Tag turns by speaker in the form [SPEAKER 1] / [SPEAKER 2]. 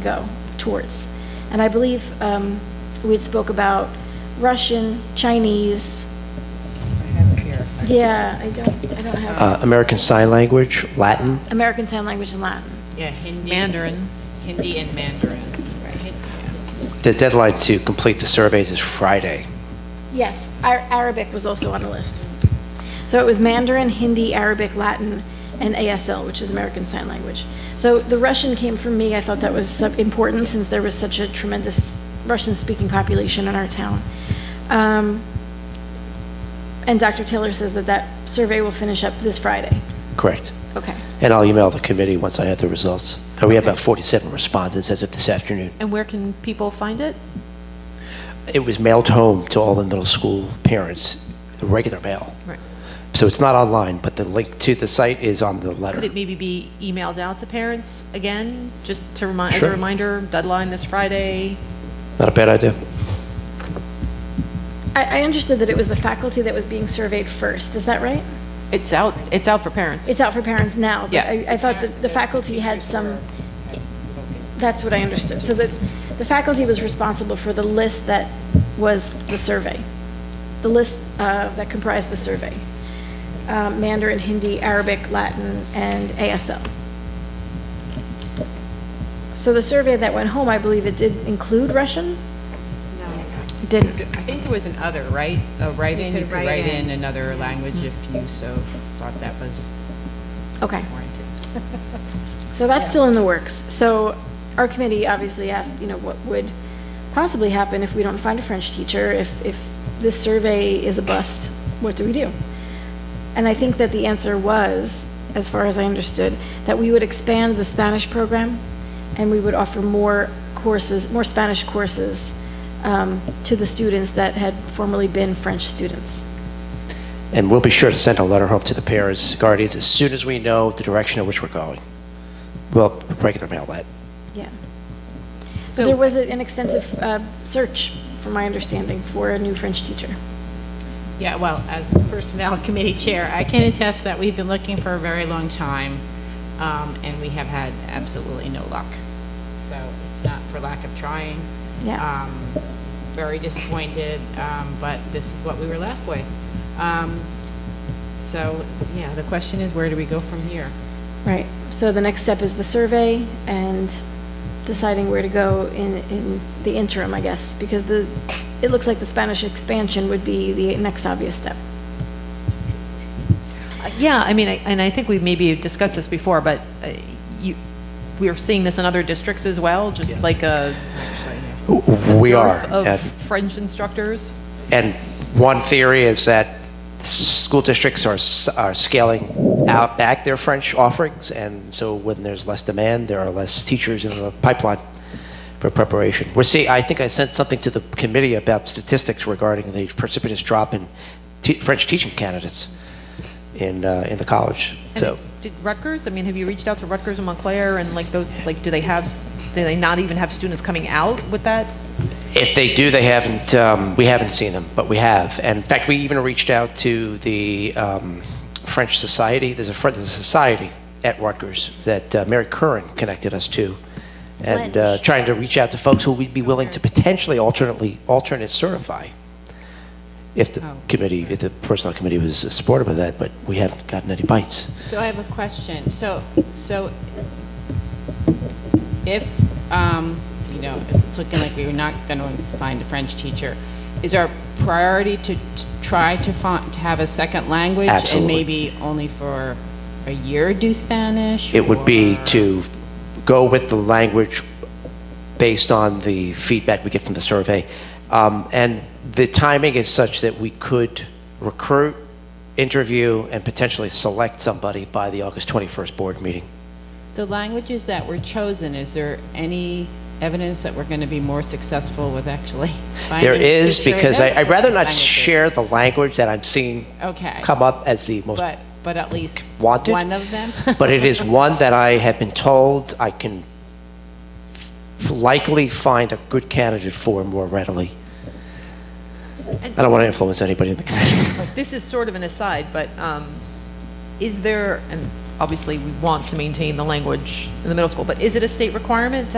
[SPEAKER 1] go towards. And I believe um, we had spoke about Russian, Chinese, yeah, I don't, I don't have,
[SPEAKER 2] uh, American Sign Language, Latin.
[SPEAKER 1] American Sign Language and Latin.
[SPEAKER 3] Yeah, Hindi.
[SPEAKER 4] Mandarin.
[SPEAKER 3] Hindi and Mandarin, right?
[SPEAKER 2] The deadline to complete the surveys is Friday.
[SPEAKER 1] Yes, Ar- Arabic was also on the list. So it was Mandarin, Hindi, Arabic, Latin, and ASL, which is American Sign Language. So the Russian came from me, I thought that was sub- important since there was such a tremendous Russian-speaking population in our town. Um, And Dr. Taylor says that that survey will finish up this Friday.
[SPEAKER 2] Correct.
[SPEAKER 1] Okay.
[SPEAKER 2] And I'll email the committee once I have the results. And we have about 47 respondents as of this afternoon.
[SPEAKER 4] And where can people find it?
[SPEAKER 2] It was mailed home to all the middle school parents, the regular mail.
[SPEAKER 4] Right.
[SPEAKER 2] So it's not online, but the link to the site is on the letter.
[SPEAKER 4] Could it maybe be emailed out to parents again, just to remind, as a
[SPEAKER 2] Sure.
[SPEAKER 4] reminder, deadline this Friday?
[SPEAKER 2] Not a bad idea.
[SPEAKER 1] I, I understood that it was the faculty that was being surveyed first, is that right?
[SPEAKER 4] It's out, it's out for parents.
[SPEAKER 1] It's out for parents now, but
[SPEAKER 4] Yeah.
[SPEAKER 1] I, I thought that the faculty had some, that's what I understood. So that the faculty was responsible for the list that was the survey, the list uh, that comprised the survey. Uh, Mandarin, Hindi, Arabic, Latin, and ASL. So the survey that went home, I believe it did include Russian? No. Didn't.
[SPEAKER 3] I think there was an other, right? A write-in, you could write in another language if you so thought that was
[SPEAKER 1] Okay.
[SPEAKER 3] warranted.
[SPEAKER 1] So that's still in the works. So our committee obviously asked, you know, what would possibly happen if we don't find a French teacher? If, if this survey is a bust, what do we do? And I think that the answer was, as far as I understood, that we would expand the Spanish program and we would offer more courses, more Spanish courses um, to the students that had formerly been French students.
[SPEAKER 2] And we'll be sure to send a letter home to the parents, guardians, as soon as we know the direction in which we're going. Well, regular mail that.
[SPEAKER 1] Yeah. So there
[SPEAKER 4] So,
[SPEAKER 1] was a- an extensive uh, search, from my understanding, for a new French teacher.
[SPEAKER 3] Yeah, well, as Personnel Committee Chair, I can attest that we've been looking for a very long time, um, and we have had absolutely no luck. So it's not for lack of trying.
[SPEAKER 1] Yeah.
[SPEAKER 3] Um, Very disappointed, um, but this is what we were left with. Um, So, yeah, the question is, where do we go from here?
[SPEAKER 1] Right. So the next step is the survey and deciding where to go in, in the interim, I guess, because the, it looks like the Spanish expansion would be the next obvious step.
[SPEAKER 4] yeah, I mean, I- and I think we maybe discussed this before, but uh, you, we're seeing this in other districts as well, just like a
[SPEAKER 2] We are.
[SPEAKER 4] dearth
[SPEAKER 2] and-
[SPEAKER 4] of French instructors?
[SPEAKER 2] And one theory is that s- school districts are, s- are scaling out back their French offerings, and so when there's less demand, there are less teachers in the pipeline for preparation. We're seeing, I think I sent something to the committee about statistics regarding the precipitous drop in te- French teaching candidates in, uh, in the college.
[SPEAKER 4] And
[SPEAKER 2] So,
[SPEAKER 4] Did Rutgers, I mean, have you reached out to Rutgers and Montclair and like those, like, do they have, do they not even have students coming out with that?
[SPEAKER 2] if they do, they haven't, um, we haven't seen them, but we have. And in fact, we even reached out to the um, French Society. There's a, Fr- there's a society at Rutgers that uh, Mary Curran connected us to. And uh,
[SPEAKER 1] French.
[SPEAKER 2] trying to reach out to folks who would be willing to potentially alternately, alternate certify if the committee, if the personnel committee was supportive of that, but we haven't gotten any bites.
[SPEAKER 3] So I have a question. So, so if, um, you know, it's looking like we were not going to find a French teacher, is our priority to t- try to find, to have a second language?
[SPEAKER 2] Absolutely.
[SPEAKER 3] And maybe only for a year do Spanish?
[SPEAKER 2] It would be
[SPEAKER 3] or-
[SPEAKER 2] to go with the language based on the feedback we get from the survey. Um, And the timing is such that we could recruit, interview, and potentially select somebody by the August 21st board meeting.
[SPEAKER 3] The languages that were chosen, is there any evidence that we're going to be more successful with actually finding
[SPEAKER 2] There
[SPEAKER 3] a
[SPEAKER 2] is,
[SPEAKER 3] teacher in
[SPEAKER 2] because I-
[SPEAKER 3] those
[SPEAKER 2] I'd rather not
[SPEAKER 3] languages?
[SPEAKER 2] share the language that I'm seeing
[SPEAKER 3] Okay.
[SPEAKER 2] come up as the most
[SPEAKER 3] But, but at least
[SPEAKER 2] wanted.
[SPEAKER 3] one of them?
[SPEAKER 2] but it is one that I have been told I can f- likely find a good candidate for more readily. I don't want to influence anybody in the committee.
[SPEAKER 4] This is sort of an aside, but um, is there, and obviously we want to maintain the language in the middle school, but is it a state requirement to